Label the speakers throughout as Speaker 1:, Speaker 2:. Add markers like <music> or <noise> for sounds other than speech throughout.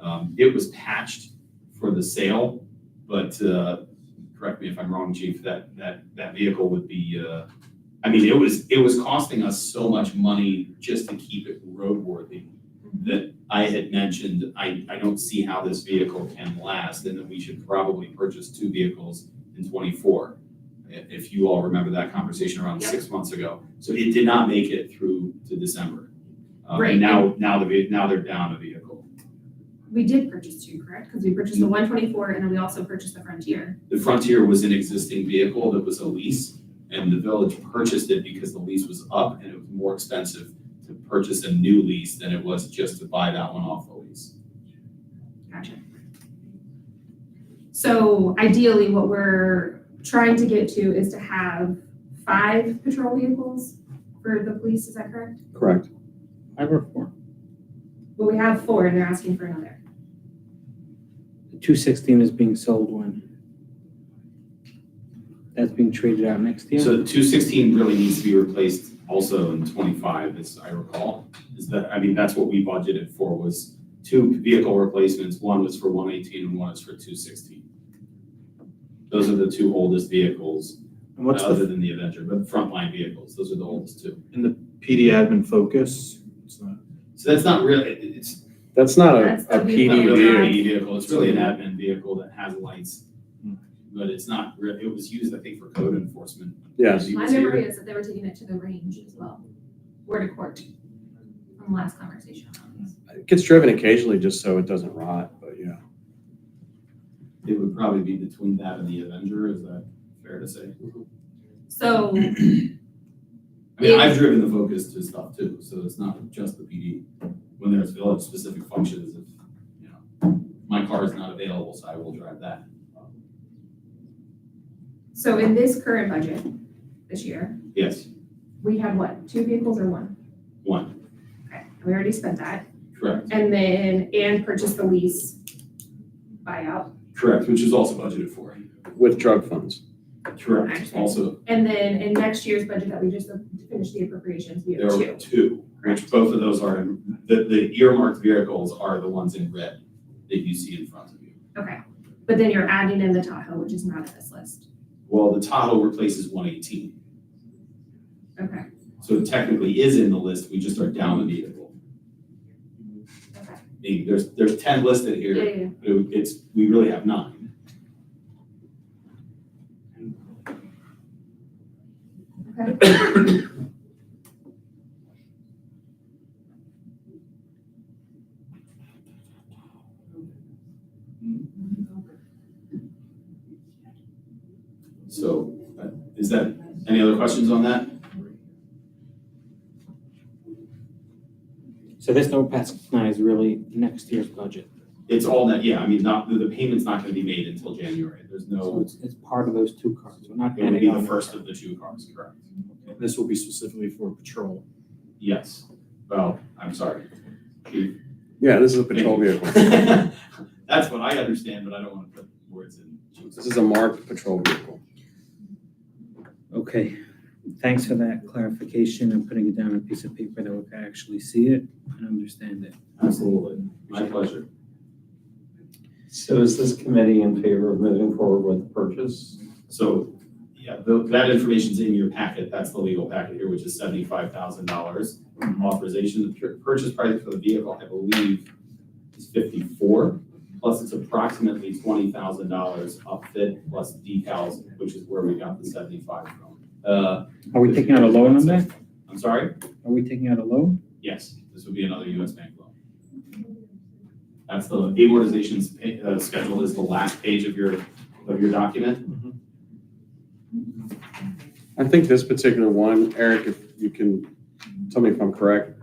Speaker 1: Um, it was patched for the sale, but, uh, correct me if I'm wrong, chief, that, that, that vehicle would be, uh, I mean, it was, it was costing us so much money just to keep it roadworthy that I had mentioned, I, I don't see how this vehicle can last and that we should probably purchase two vehicles in twenty-four. i- If you all remember that conversation around
Speaker 2: Yep.
Speaker 1: six months ago. So it did not make it through to December. Um,
Speaker 2: Right.
Speaker 1: and now, now the, ve- now they're down a vehicle.
Speaker 2: We did purchase two, correct? Because we purchased the one twenty-four and then we also purchased the Frontier.
Speaker 1: The Frontier was an existing vehicle that was a lease, and the village purchased it because the lease was up and it was more expensive to purchase a new lease than it was just to buy that one off the lease.
Speaker 2: Gotcha. So ideally, what we're trying to get to is to have five patrol vehicles for the police, is that correct?
Speaker 3: Correct.
Speaker 4: I work for
Speaker 2: Well, we have four and they're asking for another.
Speaker 4: Two sixteen is being sold when? That's being traded out next year?
Speaker 1: So two sixteen really needs to be replaced also in twenty-five, as I recall, is that, I mean, that's what we budgeted for was two vehicle replacements, one was for one eighteen and one is for two sixteen. Those are the two oldest vehicles,
Speaker 5: And what's
Speaker 1: other
Speaker 5: the
Speaker 1: than the Avenger, but frontline vehicles, those are the oldest two.
Speaker 5: PD admin focus? It's not-
Speaker 1: So that's not really, it- it's
Speaker 3: That's not a,
Speaker 2: That's
Speaker 3: a
Speaker 2: the new
Speaker 1: not
Speaker 2: one.
Speaker 3: PD
Speaker 1: really an
Speaker 3: vehicle.
Speaker 1: AE vehicle, it's really an admin vehicle that has lights.
Speaker 5: Hmm.
Speaker 1: But it's not, re- it was used, I think, for code enforcement.
Speaker 3: Yes.
Speaker 1: He
Speaker 2: My
Speaker 1: was here.
Speaker 2: memory is that they were taking it to the range as well, or to court, from the last conversation on this.
Speaker 3: It gets driven occasionally just so it doesn't rot, but yeah.
Speaker 1: It would probably be between that and the Avenger, is that fair to say?
Speaker 2: So
Speaker 1: I mean,
Speaker 2: Yeah.
Speaker 1: I've driven the Focus to stuff too, so it's not just the PD. When there's village-specific functions, if, you know, my car is not available, so I will drive that.
Speaker 2: So in this current budget, this year,
Speaker 1: Yes,
Speaker 2: we had what, two vehicles or one?
Speaker 1: one,
Speaker 2: Okay, we already spent that,
Speaker 1: correct,
Speaker 2: and then, and purchased the lease buyout,
Speaker 1: correct, which is also budgeted for.
Speaker 3: With drug funds.
Speaker 1: Correct, also,
Speaker 2: and then in next year's budget that we just finished the appropriations, we
Speaker 1: there
Speaker 2: have
Speaker 1: were
Speaker 2: two.
Speaker 1: two, which both of those are, in- the, the earmarked vehicles are the ones in red that you see in front of you.
Speaker 2: Okay, but then you're adding in the Tahoe, which is not in this list,
Speaker 1: Well, the Tahoe replaces one eighteen,
Speaker 2: okay,
Speaker 1: so it technically is in the list, we just are down the vehicle.
Speaker 2: okay,
Speaker 1: Meaning, there's, there's ten listed
Speaker 2: yeah,
Speaker 1: here,
Speaker 2: yeah, yeah.
Speaker 1: It would- It's, we really have nine.
Speaker 2: okay.
Speaker 1: So uh, is that, any other questions on that?
Speaker 4: So this don't pass nine is really next year's budget.
Speaker 1: It's all that, yeah, I mean, not, the- the payment's not gonna be made until January. There's
Speaker 4: So
Speaker 1: no,
Speaker 4: it's, it's part of those two cars. We're not
Speaker 1: it would be
Speaker 4: adding on.
Speaker 1: the first of the two cars, correct?
Speaker 5: This will be specifically for patrol.
Speaker 1: Yes. Well, I'm sorry.
Speaker 3: Yeah, this is a patrol vehicle.
Speaker 1: <laughs> That's what I understand, but I don't wanna put words in.
Speaker 3: This is a marked patrol vehicle.
Speaker 4: Okay, thanks for that clarification and putting it down on a piece of paper that we can actually see it and understand it.
Speaker 1: Absolutely. My pleasure.
Speaker 6: So is this committee in favor of moving forward with the purchase?
Speaker 1: So, yeah, tho- that information's in your packet, that's the legal packet here, which is seventy-five thousand dollars.
Speaker 4: Mm-hmm.
Speaker 1: Authorization, the pur- purchase price for the vehicle, I believe, is fifty-four, plus it's approximately twenty thousand dollars upfit plus decals, which is where we got the seventy-five from. Uh,
Speaker 4: Are we taking out a loan on that?
Speaker 1: I'm sorry?
Speaker 4: Are we taking out a loan?
Speaker 1: Yes, this would be another US bank loan. That's the amortization's pa- uh, schedule is the last page of your, of your document.
Speaker 3: I think this particular one, Eric, if you can tell me if I'm correct.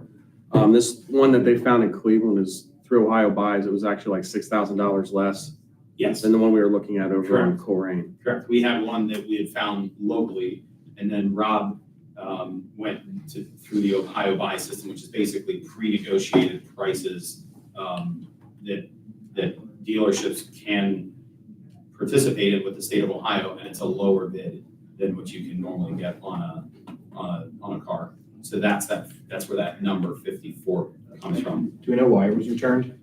Speaker 3: Um, this one that they found in Cleveland is through Ohio Buys. It was actually like six thousand dollars less
Speaker 1: Yes.
Speaker 3: than the one we were looking at over in Colerain.
Speaker 1: Correct. We had one that we had found locally, and then Rob um, went to, through the Ohio buy system, which is basically pre-negotiated prices um, that, that dealerships can participate in with the state of Ohio, and it's a lower bid than what you can normally get on a, on a, on a car. So that's that, that's where that number fifty-four comes from.
Speaker 5: Do we know why it was returned?